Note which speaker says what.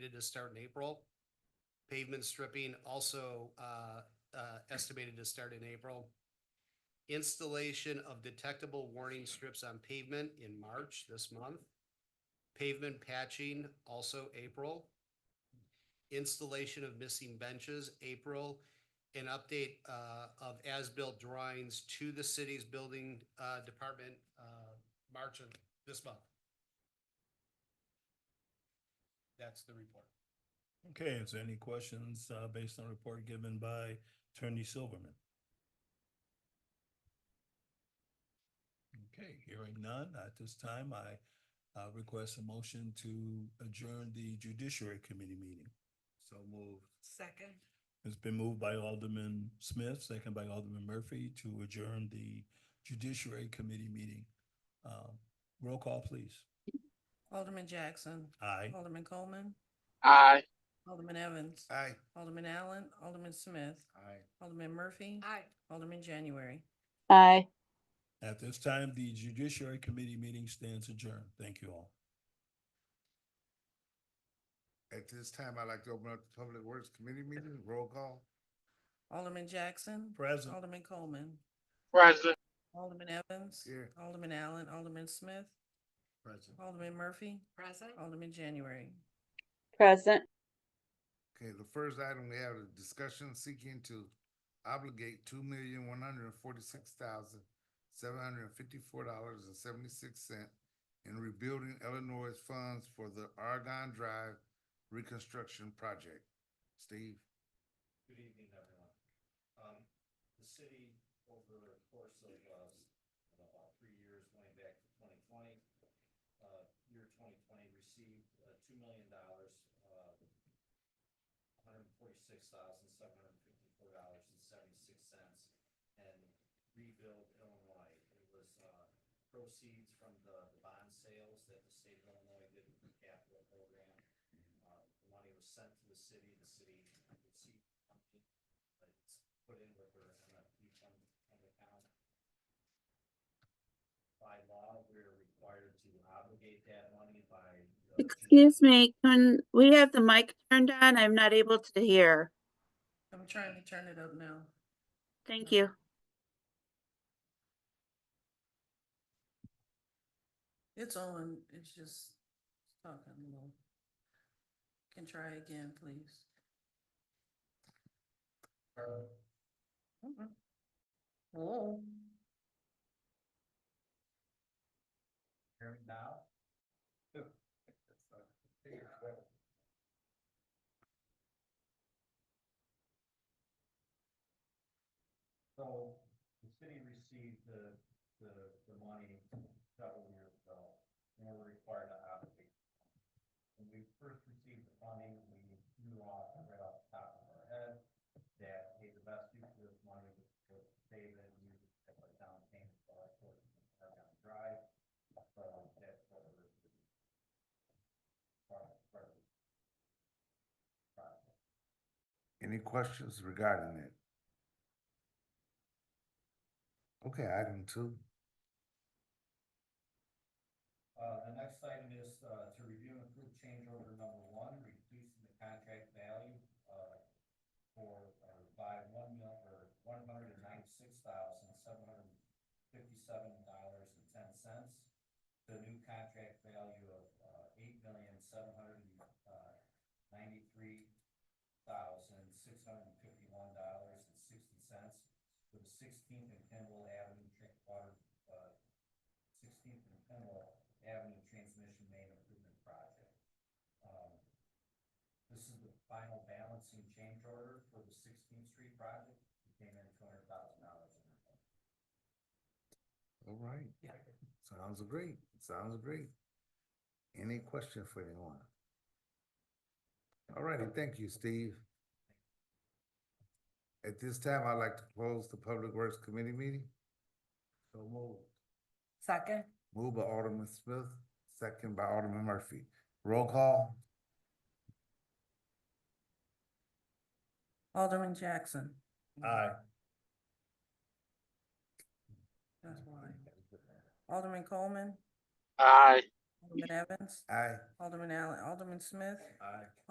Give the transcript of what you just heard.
Speaker 1: estimated to start in April. Pavement stripping also uh, uh, estimated to start in April. Installation of detectable warning strips on pavement in March this month. Pavement patching also April. Installation of missing benches, April. An update uh, of as-built drawings to the city's building uh, department, uh, March of this month. That's the report.
Speaker 2: Okay, is there any questions uh, based on report given by Attorney Silverman? Okay, hearing none. At this time, I uh, request a motion to adjourn the Judiciary Committee meeting. So moved.
Speaker 3: Second.
Speaker 2: It's been moved by Alderman Smith, second by Alderman Murphy to adjourn the Judiciary Committee meeting. Uh, Roll call, please.
Speaker 3: Alderman Jackson.
Speaker 2: Aye.
Speaker 3: Alderman Coleman.
Speaker 4: Aye.
Speaker 3: Alderman Evans.
Speaker 1: Aye.
Speaker 3: Alderman Allen. Alderman Smith.
Speaker 1: Aye.
Speaker 3: Alderman Murphy.
Speaker 5: Aye.
Speaker 3: Alderman January.
Speaker 5: Aye.
Speaker 2: At this time, the Judiciary Committee meeting stands adjourned. Thank you all.
Speaker 6: At this time, I'd like to open up the Public Works Committee meeting, roll call.
Speaker 3: Alderman Jackson.
Speaker 2: Present.
Speaker 3: Alderman Coleman.
Speaker 4: President.
Speaker 3: Alderman Evans.
Speaker 6: Here.
Speaker 3: Alderman Allen. Alderman Smith.
Speaker 6: Present.
Speaker 3: Alderman Murphy.
Speaker 5: Present.
Speaker 3: Alderman January.
Speaker 5: Present.
Speaker 6: Okay, the first item we have is discussion seeking to obligate two million one hundred and forty-six thousand seven hundred and fifty-four dollars and seventy-six cent in rebuilding Illinois funds for the Argonne Drive reconstruction project. Steve?
Speaker 1: Good evening, everyone. Um, the city, over the course of, uh, you know, about three years going back to twenty twenty, uh, year twenty twenty received, uh, two million dollars, uh, hundred and forty-six thousand, seven hundred and fifty-four dollars and seventy-six cents and rebuild Illinois. It was, uh, proceeds from the, the bond sales that the state of Illinois did with the capital program. Uh, the money was sent to the city, the city received company, but it's put in with her MFP fund fund account. By law, we're required to obligate that money by. the-
Speaker 5: Excuse me, can we have the mic turned on? I'm not able to hear.
Speaker 3: I'm trying to turn it up now.
Speaker 5: Thank you.
Speaker 3: It's on. It's just talking a little. Can try again, please. Mm-mm. Hello?
Speaker 1: Hear me now? So the city received the, the, the money several years ago, and we're required to allocate. When we first received the funding, we knew off, right off the top of our head, that, hey, the best use of this money was to save it, and use it as a down payment for our course, our down drive. So that's what we're. Part, part. Part.
Speaker 6: Any questions regarding it? Okay, item two.
Speaker 1: Uh, the next item is, uh, to review and approve change order number one, reducing the contract value, uh, for, uh, by one mil, or one hundred and ninety-six thousand, seven hundred and fifty-seven dollars and ten cents. The new contract value of, uh, eight million, seven hundred and, uh, ninety-three thousand, six hundred and fifty-one dollars and sixty cents for the Sixteenth and Kimball Avenue Drinkwater, uh, Sixteenth and Kimball Avenue Transmission Main Improvement Project. Um, This is the final balancing change order for the Sixteenth Street project, It came in two hundred thousand dollars.
Speaker 6: All right. Yeah. Sounds great, sounds great. Any question for anyone? All righty, thank you, Steve. At this time, I'd like to close the Public Works Committee meeting. So moved.
Speaker 3: Second.
Speaker 6: Moved by Alderman Smith, second by Alderman Murphy. Roll call.
Speaker 3: Alderman Jackson.
Speaker 2: Aye.
Speaker 3: That's why. Alderman Coleman,
Speaker 4: Aye.
Speaker 3: Alderman Evans,
Speaker 6: Aye.
Speaker 3: Alderman Allen, Alderman Smith,
Speaker 1: Aye.